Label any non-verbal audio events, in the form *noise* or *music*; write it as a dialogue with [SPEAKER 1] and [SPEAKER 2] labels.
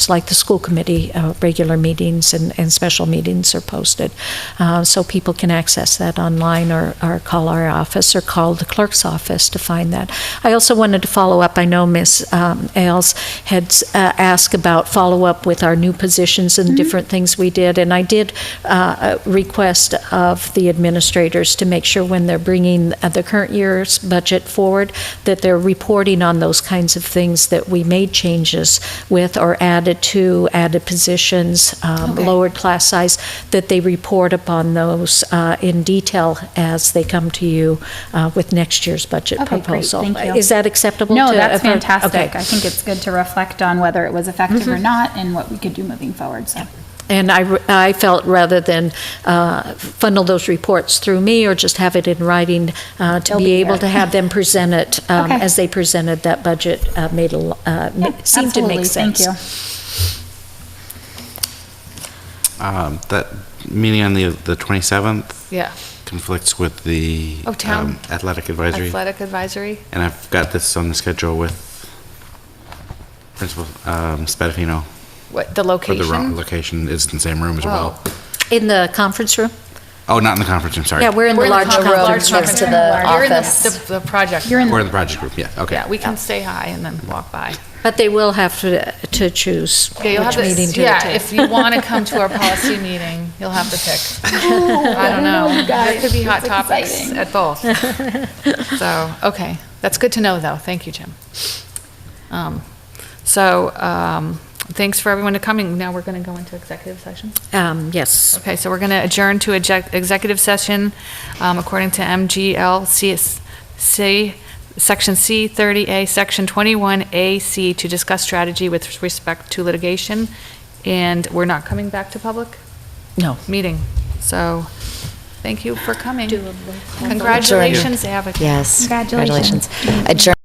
[SPEAKER 1] It's like the school committee, uh, regular meetings and, and special meetings are posted. Uh, so people can access that online or, or call our office or call the clerk's office to find that. I also wanted to follow up. I know Ms. Um, Ailes had uh, asked about follow up with our new positions and different things we did. And I did uh, request of the administrators to make sure when they're bringing uh, the current year's budget forward that they're reporting on those kinds of things that we made changes with or added to, added positions, um,
[SPEAKER 2] Okay.
[SPEAKER 1] lowered class size, that they report upon those uh, in detail as they come to you uh, with next year's budget
[SPEAKER 2] Okay, great.
[SPEAKER 1] proposal.
[SPEAKER 2] Thank you.
[SPEAKER 1] Is that acceptable?
[SPEAKER 2] No,
[SPEAKER 1] to-
[SPEAKER 2] that's
[SPEAKER 1] okay. Mm-hmm.
[SPEAKER 2] fantastic. I think it's good to reflect on whether it was effective or not and what we could do moving forward, so.
[SPEAKER 1] And I, I felt rather than uh, funnel those reports through me or just have it in writing, uh, to
[SPEAKER 2] They'll
[SPEAKER 1] be
[SPEAKER 2] be
[SPEAKER 1] able
[SPEAKER 2] here.
[SPEAKER 1] to have them present it um,
[SPEAKER 2] Okay.
[SPEAKER 1] as they presented that budget uh, made, a lo- uh, ma- seemed to make
[SPEAKER 2] Absolutely.
[SPEAKER 1] sense.
[SPEAKER 2] Thank you.
[SPEAKER 3] Um, That meeting on the, the 27th
[SPEAKER 4] Yeah,
[SPEAKER 3] conflicts with the
[SPEAKER 4] Oh, town.
[SPEAKER 3] um, athletic advisory.
[SPEAKER 4] athletic advisory.
[SPEAKER 3] And I've got this on the schedule with Principal um, Spadafino.
[SPEAKER 4] What the
[SPEAKER 3] But the wrong
[SPEAKER 4] location?
[SPEAKER 3] location is in the same room as
[SPEAKER 4] Well,
[SPEAKER 3] well.
[SPEAKER 1] In the conference room?
[SPEAKER 3] Oh, not in the conference room, sorry.
[SPEAKER 1] Yeah, we're in the
[SPEAKER 4] We're
[SPEAKER 1] large
[SPEAKER 4] con- large
[SPEAKER 1] conference room.
[SPEAKER 4] conference
[SPEAKER 2] to
[SPEAKER 4] room.
[SPEAKER 2] the
[SPEAKER 4] You're in the-
[SPEAKER 2] office.
[SPEAKER 4] The the project.
[SPEAKER 2] You're in
[SPEAKER 3] We're in the project group, yeah, okay.
[SPEAKER 4] Yeah, we can stay high and then walk by.
[SPEAKER 1] But they will have to, to choose
[SPEAKER 4] Yeah, you'll have
[SPEAKER 1] which
[SPEAKER 4] to,
[SPEAKER 1] meeting to
[SPEAKER 4] yeah, if
[SPEAKER 1] attend.
[SPEAKER 4] you want to come to our policy *laughs* meeting, you'll have to pick. I don't know. There could be hot
[SPEAKER 2] It's
[SPEAKER 4] topics
[SPEAKER 2] exciting.
[SPEAKER 4] at both. So, okay, that's good to know, though. Thank you, Jim. Um, So, um, thanks for everyone to coming. Now we're going to go into executive session.
[SPEAKER 1] Um, Yes.
[SPEAKER 4] Okay, so we're going to adjourn to exec- executive session um, according to MGLCC, Section C 30A, Section 21AC, to discuss strategy with respect to litigation, and we're not coming back to public
[SPEAKER 1] No.
[SPEAKER 4] meeting. So, thank you for coming. Congratulations, Abigail.
[SPEAKER 5] Yes.
[SPEAKER 2] Congratulations.
[SPEAKER 5] Adjourn.